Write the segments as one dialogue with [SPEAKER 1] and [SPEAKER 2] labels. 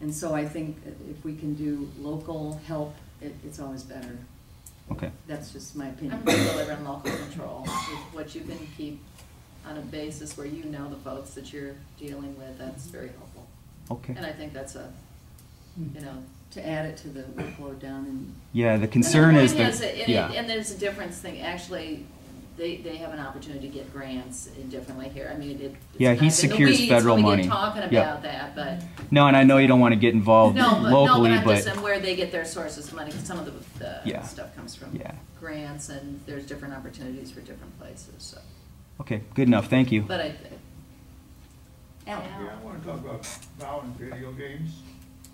[SPEAKER 1] And so I think if we can do local help, it, it's always better.
[SPEAKER 2] Okay.
[SPEAKER 1] That's just my
[SPEAKER 3] I'm
[SPEAKER 1] opinion.
[SPEAKER 3] for delivering local control, with what you can keep on a basis where you know the folks that you're dealing with, that's very helpful.
[SPEAKER 2] Okay.
[SPEAKER 3] And I think that's a, you know.
[SPEAKER 1] To add it to the workload down in
[SPEAKER 2] Yeah, the concern
[SPEAKER 3] And the
[SPEAKER 2] is
[SPEAKER 3] point and
[SPEAKER 2] that,
[SPEAKER 3] it-
[SPEAKER 2] yeah,
[SPEAKER 3] And there's a difference thing, actually, they, they have an opportunity to get grants differently here, I mean, it. it's
[SPEAKER 2] Yeah, he
[SPEAKER 3] kind of in the
[SPEAKER 2] secures
[SPEAKER 3] weeds when
[SPEAKER 2] federal money.
[SPEAKER 3] We get talking
[SPEAKER 2] Yeah.
[SPEAKER 3] about that, but.
[SPEAKER 2] no, and I know you don't want to get involved
[SPEAKER 3] No, but, no, but
[SPEAKER 2] locally,
[SPEAKER 3] I'm just saying
[SPEAKER 2] but,
[SPEAKER 3] where they get their sources of money, 'cause some of the, the
[SPEAKER 2] Yeah.
[SPEAKER 3] stuff comes from
[SPEAKER 2] Yeah.
[SPEAKER 3] grants, and there's different opportunities for different places, so.
[SPEAKER 2] okay, good enough, thank you.
[SPEAKER 3] But I,
[SPEAKER 4] Yeah, I wanna talk about violent video games.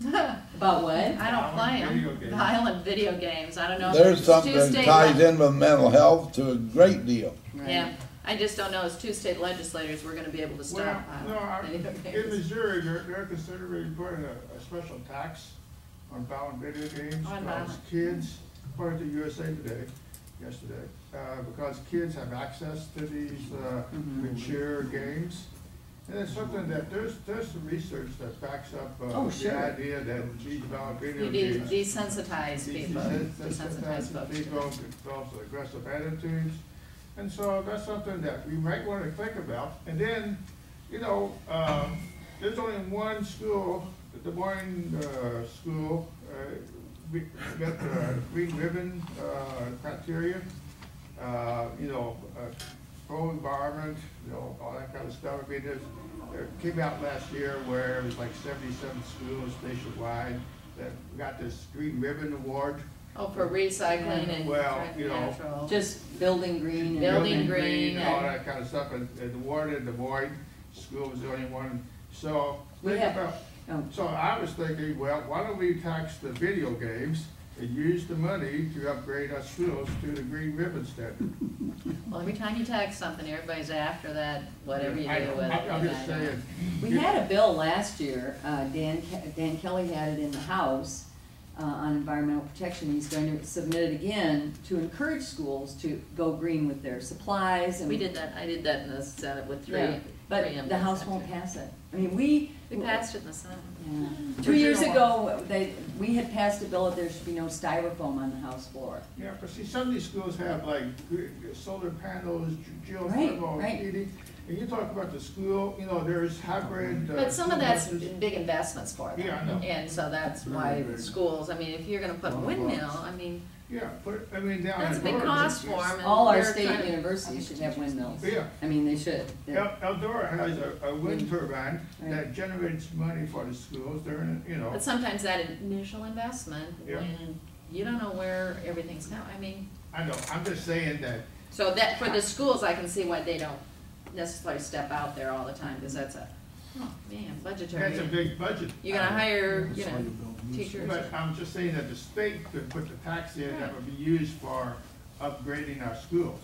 [SPEAKER 1] About what?
[SPEAKER 3] I don't play
[SPEAKER 4] Violent video
[SPEAKER 3] them,
[SPEAKER 4] games.
[SPEAKER 3] violent video games, I don't know. if
[SPEAKER 5] There's
[SPEAKER 3] it's
[SPEAKER 5] something
[SPEAKER 3] two-state
[SPEAKER 5] ties
[SPEAKER 3] le-
[SPEAKER 5] in with mental health to a great deal.
[SPEAKER 3] Yeah, I just don't know, as two state legislators, we're gonna be able to stop
[SPEAKER 4] Well, no,
[SPEAKER 3] violent video
[SPEAKER 4] I- in
[SPEAKER 3] games.
[SPEAKER 4] Missouri, they're, they're considering putting a, a special tax on violent video games.
[SPEAKER 3] On
[SPEAKER 4] because
[SPEAKER 3] violent.
[SPEAKER 4] Kids, according to USA Today, yesterday, uh, because kids have access to these, uh,
[SPEAKER 3] Mm-hmm.
[SPEAKER 4] mature games. And it's something that, there's, there's some research that backs up,
[SPEAKER 1] Oh,
[SPEAKER 4] uh, the
[SPEAKER 1] sure.
[SPEAKER 4] idea that these violent video
[SPEAKER 3] You de-
[SPEAKER 4] games.
[SPEAKER 3] desensitize
[SPEAKER 4] These-
[SPEAKER 3] people,
[SPEAKER 4] these- these-
[SPEAKER 3] desensitize folks.
[SPEAKER 4] these
[SPEAKER 3] to
[SPEAKER 4] People
[SPEAKER 3] it.
[SPEAKER 4] develop aggressive attitudes, and so that's something that we might wanna think about. And then, you know, um, there's only one school, the Des Moines, uh, school, uh, we got the green ribbon, uh, criteria. Uh, you know, uh, pro environment, you know, all that kind of stuff. I mean, there's, there came out last year where it was like seventy-seven schools nationwide that got this green ribbon award.
[SPEAKER 3] Oh, for recycling and
[SPEAKER 4] Well,
[SPEAKER 3] trying
[SPEAKER 4] you know,
[SPEAKER 3] natural.
[SPEAKER 1] Just building green and.
[SPEAKER 3] Building green.
[SPEAKER 4] and All
[SPEAKER 3] and-
[SPEAKER 4] that kind of stuff, and, and the award in Des Moines, school was the only one, so.
[SPEAKER 1] We
[SPEAKER 4] think
[SPEAKER 1] have-
[SPEAKER 4] about-
[SPEAKER 1] Oh,
[SPEAKER 4] So I was thinking, well, why don't we tax the video games and use the money to upgrade our schools to the green ribbon standard?
[SPEAKER 3] Well, every time you tax something, everybody's after that, whatever you do with
[SPEAKER 4] I-
[SPEAKER 3] it.
[SPEAKER 4] I'm- I'm
[SPEAKER 3] you
[SPEAKER 4] just
[SPEAKER 3] know.
[SPEAKER 4] saying.
[SPEAKER 1] We had a bill last year, uh, Dan, Ke- Dan Kelly had it in the House uh, on environmental protection. He's going to submit it again to encourage schools to go green with their supplies and.
[SPEAKER 3] We did that, I did that in the Senate with three.
[SPEAKER 1] Yeah,
[SPEAKER 3] three
[SPEAKER 1] But the House won't
[SPEAKER 3] amendments,
[SPEAKER 1] pass it. I mean, we.
[SPEAKER 3] actually. We passed it in the Senate.
[SPEAKER 1] Yeah. Two years ago, they, we had passed a bill that there should be no styrofoam on the House floor.
[SPEAKER 4] Yeah, but see, some of these schools have like gr- solar panels, ge- geothermal
[SPEAKER 1] right.
[SPEAKER 4] heating. And you talk about the school, you know, there's hybrid. uh,
[SPEAKER 3] But some of
[SPEAKER 4] school
[SPEAKER 3] that's
[SPEAKER 4] buses.
[SPEAKER 3] big investments for them.
[SPEAKER 4] Yeah, I know.
[SPEAKER 3] And so that's why schools, I mean, if you're gonna put a windmill, I mean,
[SPEAKER 4] Yeah, put, I mean, down.
[SPEAKER 3] that's a
[SPEAKER 4] in
[SPEAKER 3] big
[SPEAKER 4] Oregon,
[SPEAKER 3] cost for
[SPEAKER 4] it's-
[SPEAKER 3] them.
[SPEAKER 1] All our state universities should have windmills.
[SPEAKER 4] Yeah.
[SPEAKER 1] I mean, they should. They're-
[SPEAKER 4] El- Eldora has a, a wind turbine that
[SPEAKER 1] Right.
[SPEAKER 4] generates money for the schools, they're in, you know.
[SPEAKER 3] But sometimes that initial investment,
[SPEAKER 4] Yeah.
[SPEAKER 3] when you don't know where everything's going, I mean,
[SPEAKER 4] I know, I'm just saying that,
[SPEAKER 3] so that, for the schools, I can see why they don't necessarily step out there all the time, because that's a, oh, man, budgetary.
[SPEAKER 4] that's a big budget.
[SPEAKER 3] You're gonna hire, you know, teachers.
[SPEAKER 4] But I'm just saying that the state could put the tax in that would be used for upgrading our schools.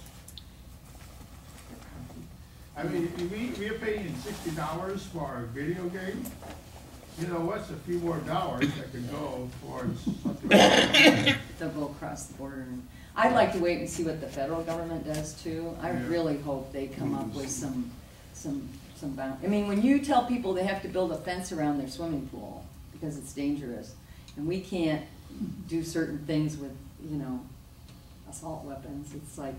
[SPEAKER 4] I mean, we, we're paying sixty dollars for a video game. You know, what's a few more dollars that could go towards something?
[SPEAKER 1] They'll go across the border. and- I'd like to wait and see what the federal government does too. I
[SPEAKER 4] Yeah.
[SPEAKER 1] really hope they come up with some, some, some bound. I mean, when you tell people they have to build a fence around their swimming pool because it's dangerous, and we can't do certain things with, you know, assault weapons, it's like,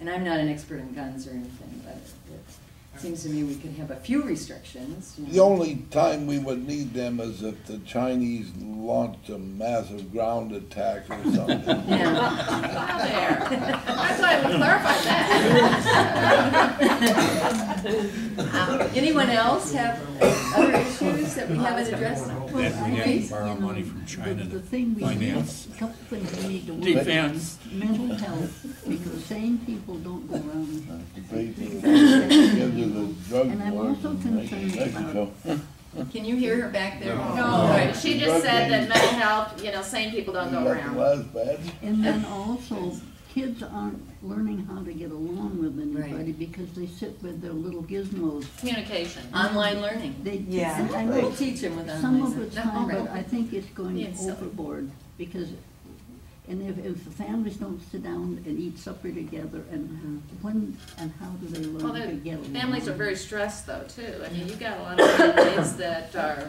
[SPEAKER 1] and I'm not an expert in guns or anything, but it- it seems to me we could have a few restrictions. you know.
[SPEAKER 5] The only time we would need them is if the Chinese launched a massive ground attack or something.
[SPEAKER 1] Yeah.
[SPEAKER 3] Wow, there. I thought I would clarify that. Um,
[SPEAKER 1] Anyone else have other issues that we haven't addressed?
[SPEAKER 6] That we
[SPEAKER 1] Please.
[SPEAKER 6] didn't borrow money from
[SPEAKER 7] The-
[SPEAKER 6] China
[SPEAKER 7] The
[SPEAKER 6] to
[SPEAKER 7] thing we need, a
[SPEAKER 6] finance
[SPEAKER 7] couple things we need to work on,
[SPEAKER 6] defense.
[SPEAKER 7] mental health, because sane people don't go around.
[SPEAKER 5] The people that Give you the drug
[SPEAKER 7] And I'm
[SPEAKER 5] wars
[SPEAKER 7] also
[SPEAKER 5] in
[SPEAKER 7] concerned
[SPEAKER 5] Mexico.
[SPEAKER 1] Can you hear her back there?
[SPEAKER 3] No, right, she just said that mental health, you know, sane people don't go
[SPEAKER 5] Nothing
[SPEAKER 3] around.
[SPEAKER 5] less bad.
[SPEAKER 7] And then also, kids aren't learning how to get along with anybody because they sit with their little gizmos.
[SPEAKER 3] Communication.
[SPEAKER 1] Online learning.
[SPEAKER 7] They,
[SPEAKER 1] Yeah.
[SPEAKER 7] and I
[SPEAKER 1] We'll
[SPEAKER 7] know,
[SPEAKER 1] teach him with
[SPEAKER 7] some of
[SPEAKER 1] online.
[SPEAKER 7] it's fine, but I
[SPEAKER 1] learning.
[SPEAKER 7] think it's
[SPEAKER 3] Being
[SPEAKER 7] going
[SPEAKER 3] silly.
[SPEAKER 7] overboard, because, and if, if the families don't sit down and eat supper together, and when and how do they
[SPEAKER 3] Well,
[SPEAKER 7] learn to
[SPEAKER 3] the
[SPEAKER 7] get along?
[SPEAKER 3] families are very stressed though, too. I mean, you've got a lot of kids that are